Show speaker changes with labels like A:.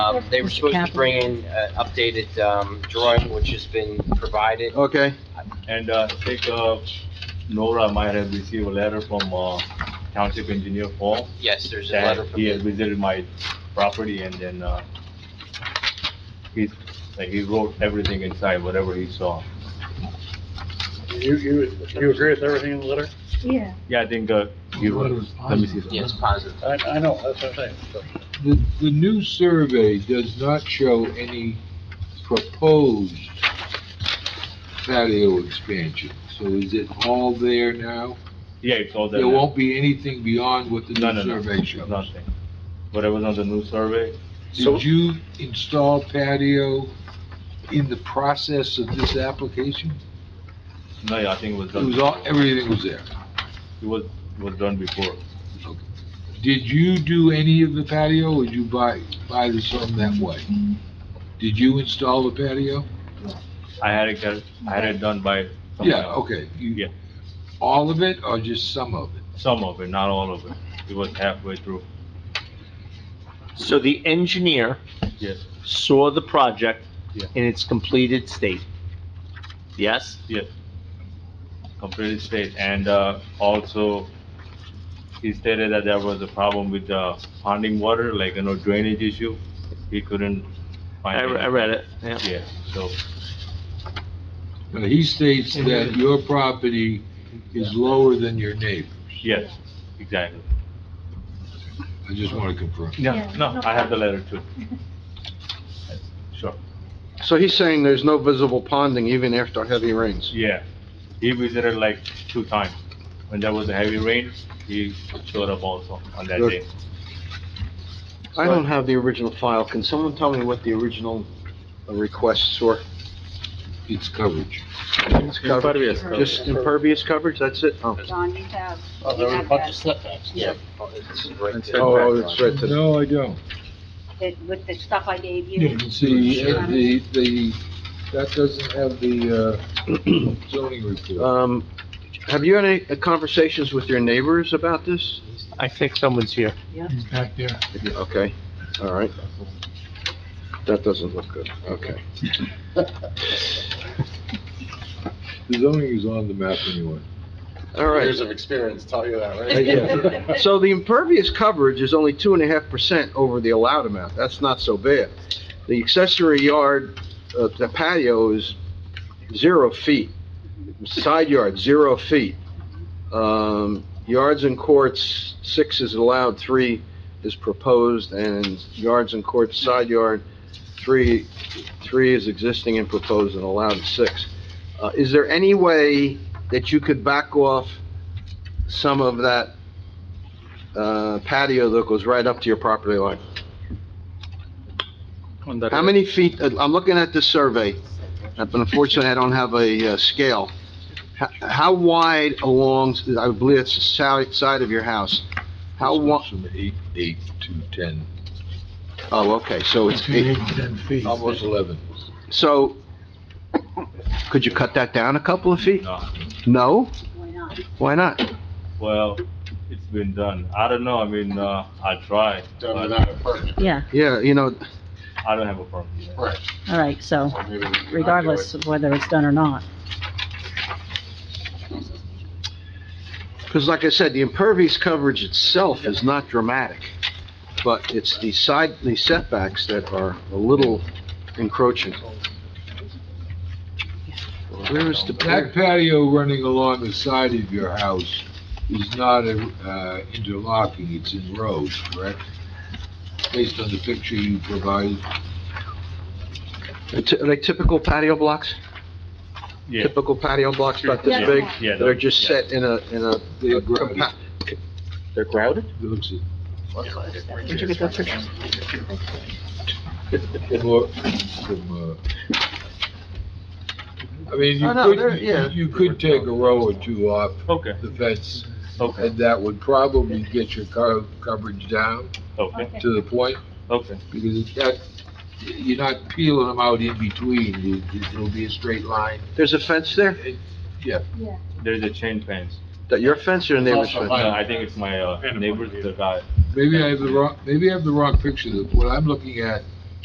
A: Um, they were
B: Mr.
A: supposed to
B: Kaplan.
A: bring in an updated, um, drawing, which has been provided.
C: Okay,
D: And uh, I think uh, Nora might have received a letter from uh, Township Engineer Paul
A: Yes, there's a
D: that
A: letter from
D: he had visited my property and then uh, he's, like, he wrote everything inside, whatever he saw.
E: You, you, you agree with everything in the letter?
B: Yeah.
D: Yeah, I think uh, he wrote, let me see.
A: Yes, positive.
E: I, I know, that's what I'm saying.
F: The, the new survey does not show any proposed patio expansion, so is it all there now?
D: Yeah, it's all there.
F: There
D: now.
F: won't be anything beyond what the
D: No, no,
F: new
D: no,
F: survey shows?
D: nothing. Whatever's on the new survey,
E: So-
F: Did you install patio in the process of this application?
D: no, yeah, I think it was
F: It
D: done.
F: was all, everything was there.
D: It was, was done before.
F: Did you do any of the patio, or did you buy, buy this home that way? Did you install the patio?
D: I had it, cal- I had it done by someone
F: Yeah,
D: else.
F: okay. You-
D: Yeah.
F: All of it, or just some of it?
D: Some of it, not all of it. It was halfway through.
G: So the engineer
D: Yes,
G: saw the project
D: Yeah.
G: in its completed state. Yes?
D: completely state. And uh, also, he stated that there was a problem with uh, ponding water, like, you know, drainage issue. He couldn't
G: I,
D: find it.
G: I read it, yeah.
D: Yeah, so,
F: Now, he states that your property is lower than your neighbor.
D: yes, exactly.
F: I just want to confirm.
D: No,
B: Yeah,
D: no,
B: no
D: I have the letter too. Sure.
C: so he's saying there's no visible ponding even after heavy rains?
D: Yeah, he visited like two times. When there was a heavy rain, he showed up also on that
C: Good.
D: day.
C: I don't have the original file, can someone tell me what the original uh, requests were?
F: It's coverage.
C: It's covered. Just impervious coverage, that's it? Oh,
H: John, you have,
E: Oh, there was a bunch of setbacks.
A: Yeah. oh, it's right there.
C: oh, it's right to
F: No, I don't.
H: that- with the stuff I gave
F: The,
H: you,
F: the, the, that doesn't have the, uh, zoning report.
C: Um, have you had any uh, conversations with your neighbors about this?
G: I think someone's here.
C: Okay, all right. That doesn't look good, okay.
F: The zoning is on the map anyway.
C: All right,
E: of experience tell you that,
F: Uh, yeah.
C: so the impervious coverage is only two and a half percent over the allowed amount, that's not so bad. The accessory yard, uh, the patio is zero feet, side yard, zero feet. Um, yards and courts, six is allowed, three is proposed, and yards and courts, side yard, three, three is existing and proposed and allowed is six. Uh, is there any way that you could back off some of that uh, patio that goes right up to your property line. How many feet, uh, I'm looking at this survey, uh, but unfortunately, I don't have a uh, scale. H- How wide along, I believe it's the side side of your house? How
F: This
C: wa,
F: goes From eight, eight to ten,
C: oh, okay, so it's eight,
F: almost eleven.
C: so, could you cut that down a couple of feet?
D: No,
C: No?
H: why not?
C: Why not?
D: well, it's been done. I don't know, I mean, uh, I tried, but
B: Yeah,
C: Yeah, you know,
D: I don't have a problem. with that.
B: all right, so regardless of whether it's done or not.
C: Because like I said, the impervious coverage itself is not dramatic, but it's the side, the setbacks that are a little encroaching. Where is the,
F: That
C: where-
F: patio running along the side of your house is not, uh, interlocking, it's in rows, correct? Based on the picture you provided,
C: are ty- are they typical patio blocks?
D: Yeah.
C: Typical patio blocks about
D: Yeah,
C: this big?
D: yeah,
C: They're just
D: yeah.
C: set in a, in a.
F: They're grouted.
C: They're grouted?
F: it looks at,
C: Where'd you get that picture?
F: more from, uh, I mean, you
C: Oh, no, they're- yeah.
F: could, you could take a row or two off
D: Okay,
F: the fence,
D: okay,
F: and that would probably get your co- coverage down
D: okay,
F: to the point,
D: okay,
F: because that, you're not peeling them out in between, It- it'll be a straight line.
C: There's a fence there?
D: there's a chain fence.
C: That your fence or your neighbor's fence?
D: No, I think it's my uh, neighbor's, the guy,
F: Maybe I have the wrong, maybe I have the wrong picture, what I'm looking at